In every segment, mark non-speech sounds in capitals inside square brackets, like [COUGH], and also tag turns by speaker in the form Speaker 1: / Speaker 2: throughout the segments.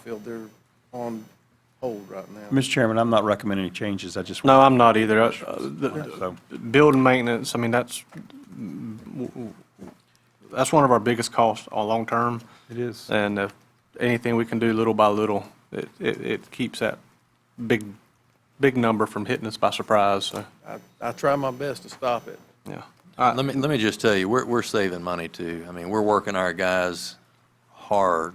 Speaker 1: field, they're on hold right now.
Speaker 2: Mr. Chairman, I'm not recommending any changes. I just,
Speaker 3: No, I'm not either. Uh, the-
Speaker 2: so,
Speaker 3: Building maintenance, I mean, that's, that's one of our biggest costs all long-term.
Speaker 4: It is.
Speaker 3: And if anything we can do little by little, it, it, it keeps that big, big number from hitting us by surprise, so,
Speaker 1: I, I try my best to stop it.
Speaker 3: yeah.
Speaker 5: Let me, let me just tell you, we're, we're saving money too. I mean, we're working our guys hard.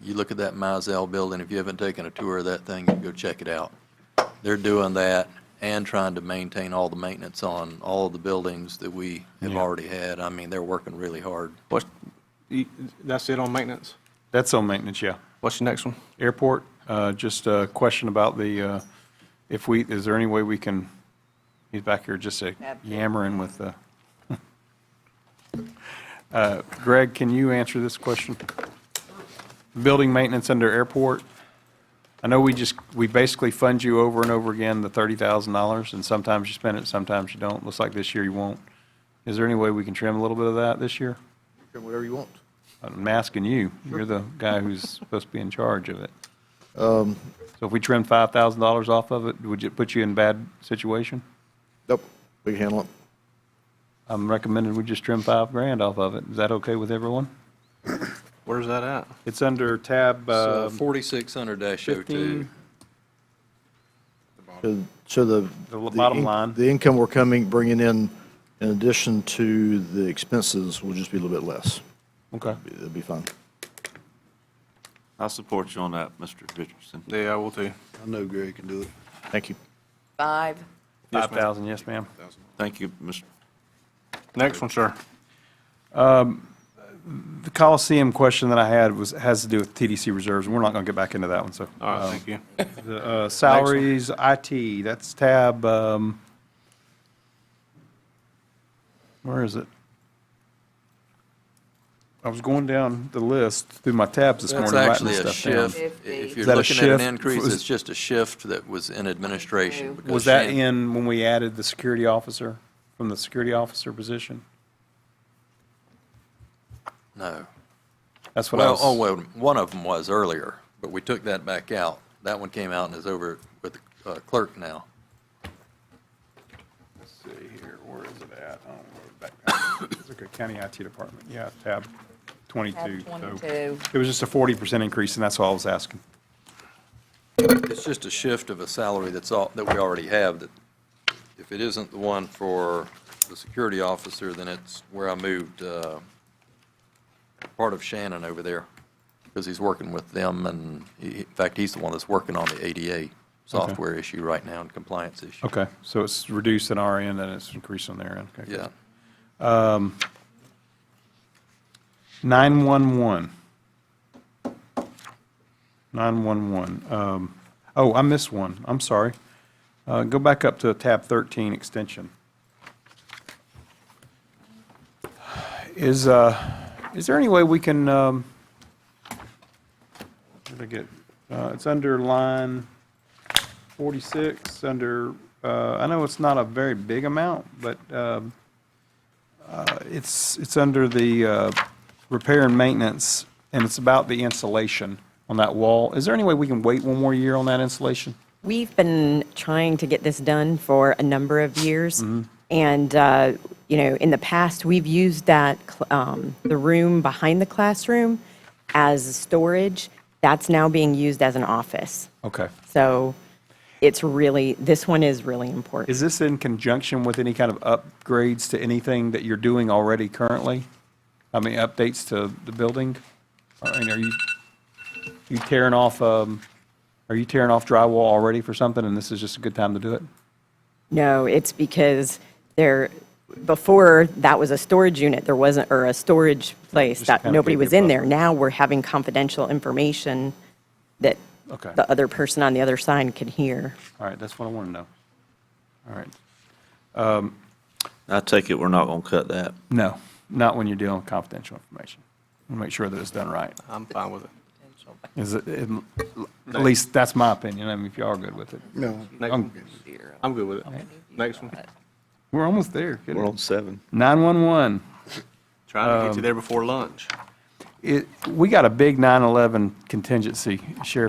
Speaker 5: You look at that Mizell building, if you haven't taken a tour of that thing, you can go check it out. They're doing that and trying to maintain all the maintenance on all the buildings that we have already had. I mean, they're working really hard.
Speaker 3: What's, you- that's it on maintenance?
Speaker 2: that's on maintenance, yeah.
Speaker 3: What's your next one?
Speaker 2: Airport, uh, just a question about the, uh, if we, is there any way we can, he's back here just uh, yammering with the. [LAUGHS] Uh, Greg, can you answer this question? Building maintenance under airport? I know we just, we basically fund you over and over again, the $30,000, and sometimes you spend it, sometimes you don't. Looks like this year you won't. Is there any way we can trim a little bit of that this year?
Speaker 1: Do whatever you want.
Speaker 2: I'm asking you. You're the guy who's supposed to be in charge of it. So if we trimmed five thousand dollars off of it, would it put you in bad situation?
Speaker 6: Nope, we can handle it.
Speaker 2: I'm recommending we just trim five grand off of it. Is that okay with everyone?
Speaker 3: Where's that at?
Speaker 2: It's under tab, uh,
Speaker 5: Forty-six hundred dash oh two.
Speaker 2: fifteen.
Speaker 6: So- So the.
Speaker 2: The bottom
Speaker 6: in-
Speaker 2: line.
Speaker 6: The income we're coming, bringing in, in addition to the expenses, will just be a little bit less.
Speaker 2: Okay.
Speaker 6: It'll be fine.
Speaker 4: I support you on that, Mr. Richardson.
Speaker 3: Yeah, I will too.
Speaker 7: I know Greg can do it.
Speaker 6: Thank you.
Speaker 8: Five,
Speaker 2: Five thousand, yes, ma'am.
Speaker 4: Thank you, Mr.
Speaker 3: Next one, sir.
Speaker 2: The Coliseum question that I had was, has to do with TDC reserves, and we're not gonna get back into that one, so.
Speaker 3: All
Speaker 4: Um,
Speaker 3: right, thank
Speaker 4: [LAUGHS]
Speaker 3: you.
Speaker 2: The, uh, salaries, IT, that's tab, um, where is it? I was going down the list through my tabs this
Speaker 5: That's
Speaker 2: morning, writing
Speaker 5: actually
Speaker 2: this
Speaker 5: a
Speaker 2: stuff down.
Speaker 5: shift.
Speaker 8: Fifty.
Speaker 5: If
Speaker 2: Is
Speaker 5: you're
Speaker 2: that a
Speaker 5: looking at an
Speaker 2: shift?
Speaker 5: increase,
Speaker 2: Was-
Speaker 5: it's just a shift that was in administration. because
Speaker 2: Was that
Speaker 5: Shan-
Speaker 2: in when we added the security officer, from the security officer position?
Speaker 5: No.
Speaker 2: That's what I
Speaker 5: Well, oh,
Speaker 2: was,
Speaker 5: well, one of them was earlier, but we took that back out. That one came out and is over with the uh, clerk now.
Speaker 2: let's see here, where is it at? Oh, back down. It's like a County IT department, yeah, tab twenty-two.
Speaker 8: tab
Speaker 2: so
Speaker 8: 22.
Speaker 2: It was just a forty percent increase, and that's all I was asking.
Speaker 5: It's just a shift of a salary that's all, that we already have, that if it isn't the one for the security officer, then it's where I moved uh, part of Shannon over there, because he's working with them, and he- in fact, he's the one that's working on the ADA software issue right now and compliance issue.
Speaker 2: Okay, so it's reduced on our end, and it's increased on their end, okay.
Speaker 5: Yeah.
Speaker 2: 911. 911. Um, Oh, I missed one, I'm sorry. Uh, Go back up to tab 13, extension. Is, uh, is there any way we can, um, where did I get, uh, it's under line 46, under, uh, I know it's not a very big amount, but um, it's, it's under the uh, repair and maintenance, and it's about the insulation on that wall. Is there any way we can wait one more year on that insulation?
Speaker 9: We've been trying to get this done for a number of years. And, uh, you know, in the past, we've used that, cl- um, the room behind the classroom as storage. That's now being used as an office.
Speaker 2: Okay.
Speaker 9: So it's really, this one is really important.
Speaker 2: Is this in conjunction with any kind of upgrades to anything that you're doing already currently? I mean, updates to the building? I mean, are you, you tearing off, um, are you tearing off drywall already for something, and this is just a good time to do it?
Speaker 9: No, it's because there, before, that was a storage unit, there wasn't, or a storage place,
Speaker 2: Just
Speaker 9: that
Speaker 2: kinda
Speaker 9: nobody
Speaker 2: keep it
Speaker 9: was in there.
Speaker 2: buffered.
Speaker 9: Now we're having confidential information that
Speaker 2: Okay.
Speaker 9: the other person on the other side can hear.
Speaker 2: All right, that's what I want to know. All right. Um,
Speaker 4: I take it we're not going to cut that.
Speaker 2: No, not when you're dealing with confidential information. We'll make sure that it's done right.
Speaker 3: I'm fine with it.
Speaker 2: Is it, it- at least that's my opinion, I mean, if y'all are good with it.
Speaker 7: No,
Speaker 2: Um,
Speaker 3: Next- I'm good with it. Next one.
Speaker 2: We're almost there.
Speaker 4: We're on seven.
Speaker 2: 911.
Speaker 3: Trying to get you there before lunch.
Speaker 2: It, we got a big 911 contingency, Sheriff